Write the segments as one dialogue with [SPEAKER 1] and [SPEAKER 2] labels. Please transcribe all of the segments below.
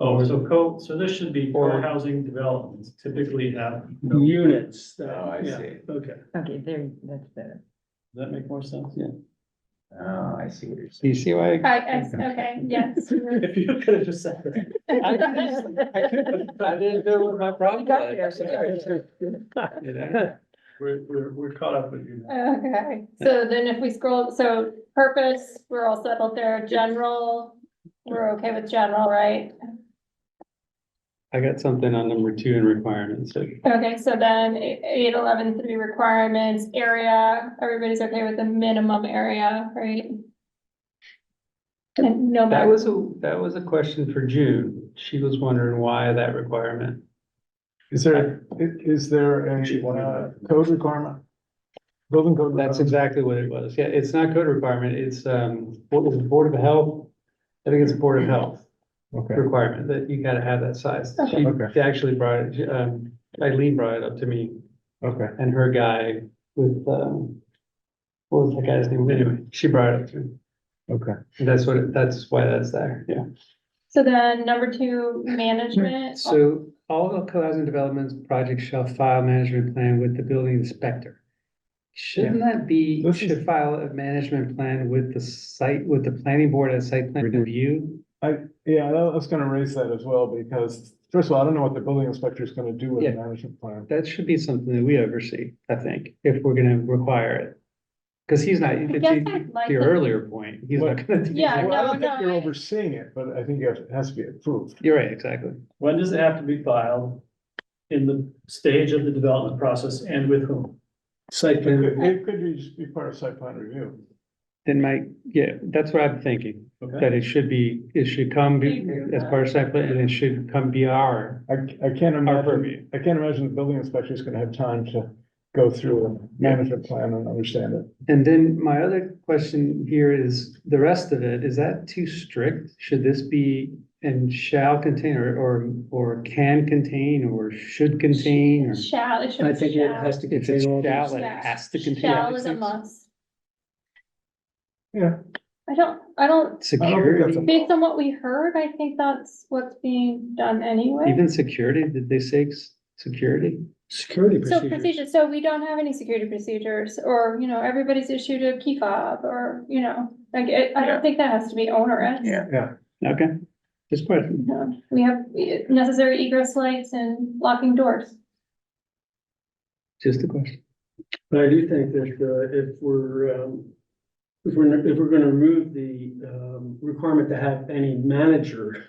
[SPEAKER 1] Oh, so co, so this should be
[SPEAKER 2] Or-
[SPEAKER 1] co-housing developments typically have, does
[SPEAKER 2] units. that-
[SPEAKER 3] Oh, I
[SPEAKER 2] yeah,
[SPEAKER 3] see.
[SPEAKER 2] Okay,
[SPEAKER 4] Okay, there, that's better.
[SPEAKER 1] that make more sense?
[SPEAKER 3] Oh, I see what you're
[SPEAKER 2] do
[SPEAKER 3] saying.
[SPEAKER 2] you see why? I-
[SPEAKER 5] I, I, okay, yes.
[SPEAKER 1] If you could have just said that.
[SPEAKER 2] I couldn't- I couldn't- I didn't know what my problem was.
[SPEAKER 1] We're, we're, we're caught up with you now.
[SPEAKER 5] Okay, so then if we scroll, so purpose, we're all settled there, general, we're okay with general, right?
[SPEAKER 2] I got something on number two in requirements, so
[SPEAKER 5] Okay, so then e- eight, eleven, three requirements, area, everybody's okay with the minimum area, right? And no
[SPEAKER 2] That
[SPEAKER 5] matter,
[SPEAKER 2] was a, that was a question for June. She was wondering why that requirement.
[SPEAKER 6] Is there, i- is there
[SPEAKER 1] She
[SPEAKER 6] a
[SPEAKER 1] wanted
[SPEAKER 6] uh,
[SPEAKER 1] that.
[SPEAKER 6] code requirement? Building code.
[SPEAKER 2] That's
[SPEAKER 6] requirement?
[SPEAKER 2] exactly what it was. Yeah, it's not code requirement. It's, um, what was it, Board of Health? I think it's Board of Health
[SPEAKER 6] Okay,
[SPEAKER 2] requirement that you gotta have that size. She
[SPEAKER 6] Okay.
[SPEAKER 2] she actually brought it, um, Eileen brought it up to me
[SPEAKER 6] okay.
[SPEAKER 2] and her guy with, um, what was that guy's name? Anyway, she brought it up to me.
[SPEAKER 6] Okay.
[SPEAKER 2] And That's what, it- that's why that's there. Yeah.
[SPEAKER 5] so then number two, management,
[SPEAKER 2] So all of co-housing developments projects shall file management plan with the building inspector. Shouldn't that be,
[SPEAKER 6] This
[SPEAKER 2] should file a management plan with the site, with the planning board at site plan review?
[SPEAKER 6] Yeah, I was gonna raise that as well, because first of all, I don't know what the building inspector is gonna do with the
[SPEAKER 2] Yeah.
[SPEAKER 6] management plan.
[SPEAKER 2] That should be something that we oversee, I think, if we're gonna require it. Cause he's not,
[SPEAKER 5] I
[SPEAKER 2] to
[SPEAKER 5] guess I'd like
[SPEAKER 2] to your
[SPEAKER 5] to-
[SPEAKER 2] earlier point, he's not gonna. do
[SPEAKER 5] Yeah,
[SPEAKER 2] that.
[SPEAKER 6] Well, I
[SPEAKER 5] no,
[SPEAKER 6] don't
[SPEAKER 5] no,
[SPEAKER 6] think you're
[SPEAKER 5] I-
[SPEAKER 6] overseeing it, but I think it has- has to be approved.
[SPEAKER 2] You're right, exactly.
[SPEAKER 1] When does it have to be filed? In the stage of the development process and with whom?
[SPEAKER 2] Site
[SPEAKER 6] It could, it could be, just be part of site plan review.
[SPEAKER 2] Then my, yeah, that's what I'm thinking,
[SPEAKER 1] Okay,
[SPEAKER 2] that it should be, it should come be- as part of site plan and it should come be our,
[SPEAKER 6] I, I can't
[SPEAKER 2] our
[SPEAKER 6] imagine,
[SPEAKER 2] purview.
[SPEAKER 6] I can't imagine the building inspector is gonna have time to go through a management plan and understand it.
[SPEAKER 2] And then my other question here is, the rest of it, is that too strict? Should this be and shall contain or, or, or can contain or should contain or?
[SPEAKER 5] shall, it should be shall.
[SPEAKER 2] to contain. If it's shall, it
[SPEAKER 5] things.
[SPEAKER 2] has to contain.
[SPEAKER 5] Shall is a
[SPEAKER 2] everything.
[SPEAKER 5] must.
[SPEAKER 6] Yeah.
[SPEAKER 5] I don't, I don't,
[SPEAKER 6] I don't think that's a-
[SPEAKER 2] Security,
[SPEAKER 5] based on what we heard, I think that's what's being done anyway.
[SPEAKER 2] even security, did they say s- security?
[SPEAKER 6] Security
[SPEAKER 5] So procedures, so we don't have any security procedures, or, you know, everybody's issued a key fob, or, you know, like, it- I
[SPEAKER 3] Yeah.
[SPEAKER 5] don't think that has to be onerous.
[SPEAKER 3] Yeah.
[SPEAKER 2] Okay, just question.
[SPEAKER 5] No, We have eh, necessary egress lights and locking doors.
[SPEAKER 2] just a question.
[SPEAKER 7] But I do think that uh, if we're, um, if we're, if we're gonna remove the um, requirement to have any manager,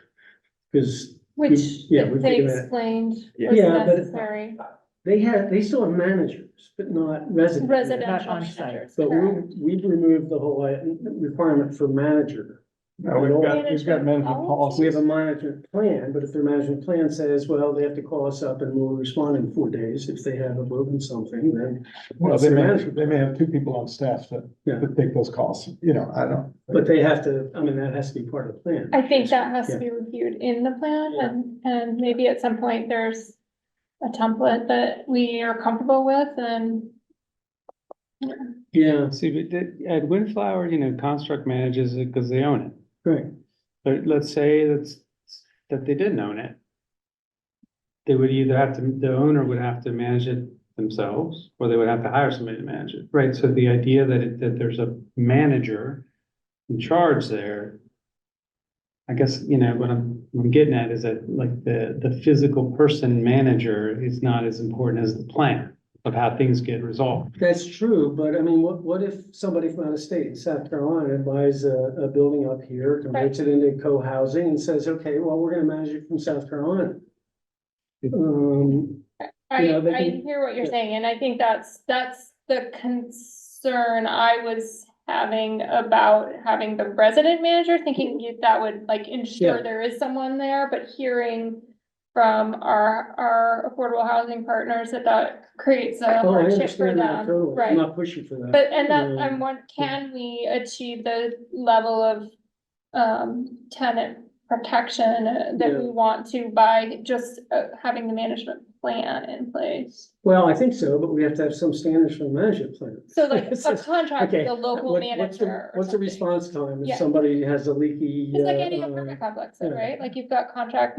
[SPEAKER 7] because
[SPEAKER 5] Which
[SPEAKER 7] yeah, we
[SPEAKER 5] they
[SPEAKER 7] figured that-
[SPEAKER 5] explained
[SPEAKER 7] Yeah.
[SPEAKER 5] was
[SPEAKER 7] Yeah, but-
[SPEAKER 5] necessary,
[SPEAKER 7] they have, they still have managers, but not residents.
[SPEAKER 4] Not
[SPEAKER 5] residential
[SPEAKER 4] on site.
[SPEAKER 5] managers,
[SPEAKER 7] But
[SPEAKER 5] correct.
[SPEAKER 7] we, we've removed the whole uh, requirement for manager.
[SPEAKER 6] No, we've got, we've
[SPEAKER 5] Management
[SPEAKER 6] got management
[SPEAKER 5] policy.
[SPEAKER 7] We
[SPEAKER 6] policies.
[SPEAKER 7] have a management plan, but if their management plan says, well, they have to call us up and we'll respond in four days if they haven't broken something, then.
[SPEAKER 6] Well,
[SPEAKER 7] that's
[SPEAKER 6] they
[SPEAKER 7] their
[SPEAKER 6] may,
[SPEAKER 7] management
[SPEAKER 6] they may have two people on staff that,
[SPEAKER 7] Yeah.
[SPEAKER 6] that take those calls, you know, I don't.
[SPEAKER 7] But they have to, I mean, that has to be part of the plan.
[SPEAKER 5] I think that has to
[SPEAKER 7] Yeah.
[SPEAKER 5] be reviewed in the plan
[SPEAKER 7] Yeah.
[SPEAKER 5] and, and maybe at some point there's a template that we are comfortable with and
[SPEAKER 7] Yeah,
[SPEAKER 2] See, but that- at Windflower, you know, Construct manages it because they own it.
[SPEAKER 7] right.
[SPEAKER 2] But let's say that's, that they didn't own it. They would either have to, the owner would have to manage it themselves, or they would have to hire somebody to manage it, right? So the idea that, it- that there's a manager in charge there. I guess, you know, what I'm, what I'm getting at is that like the, the physical person manager is not as important as the plan of how things get resolved.
[SPEAKER 7] That's true, but I mean, what, what if somebody from out of state, South Carolina, buys a, a building up here, converts it into co-housing and says, okay, well, we're gonna manage it from South Carolina? Um,
[SPEAKER 5] I,
[SPEAKER 7] Yeah, they
[SPEAKER 5] I
[SPEAKER 7] can-
[SPEAKER 5] hear what you're
[SPEAKER 7] yeah.
[SPEAKER 5] saying and I think that's, that's the concern I was having about having the resident manager, thinking you- that would like ensure
[SPEAKER 7] Mm-hmm. Yeah.
[SPEAKER 5] there is someone there, but hearing from our, our affordable housing partners that that creates a
[SPEAKER 7] oh, I
[SPEAKER 5] hardship for
[SPEAKER 7] understand that
[SPEAKER 5] them,
[SPEAKER 7] totally,
[SPEAKER 5] right?
[SPEAKER 7] I'm not pushing for that.
[SPEAKER 5] But, and that,
[SPEAKER 7] Um,
[SPEAKER 5] I'm one, can we achieve the level of, um, tenant protection uh, that we
[SPEAKER 7] Yeah.
[SPEAKER 5] want to by just uh, having the management plan in place?
[SPEAKER 7] Well, I think so, but we have to have some standards for the management plan.
[SPEAKER 5] So like a contract
[SPEAKER 7] Okay,
[SPEAKER 5] with a local
[SPEAKER 7] What- what's the-
[SPEAKER 5] manager. or
[SPEAKER 7] What's the
[SPEAKER 5] something.
[SPEAKER 7] response time
[SPEAKER 5] Yeah.
[SPEAKER 7] if somebody has a leaky?
[SPEAKER 5] It's like
[SPEAKER 7] uh,
[SPEAKER 5] any
[SPEAKER 7] um,
[SPEAKER 5] apartment complex, though,
[SPEAKER 7] yeah.
[SPEAKER 5] right? Like you've got contract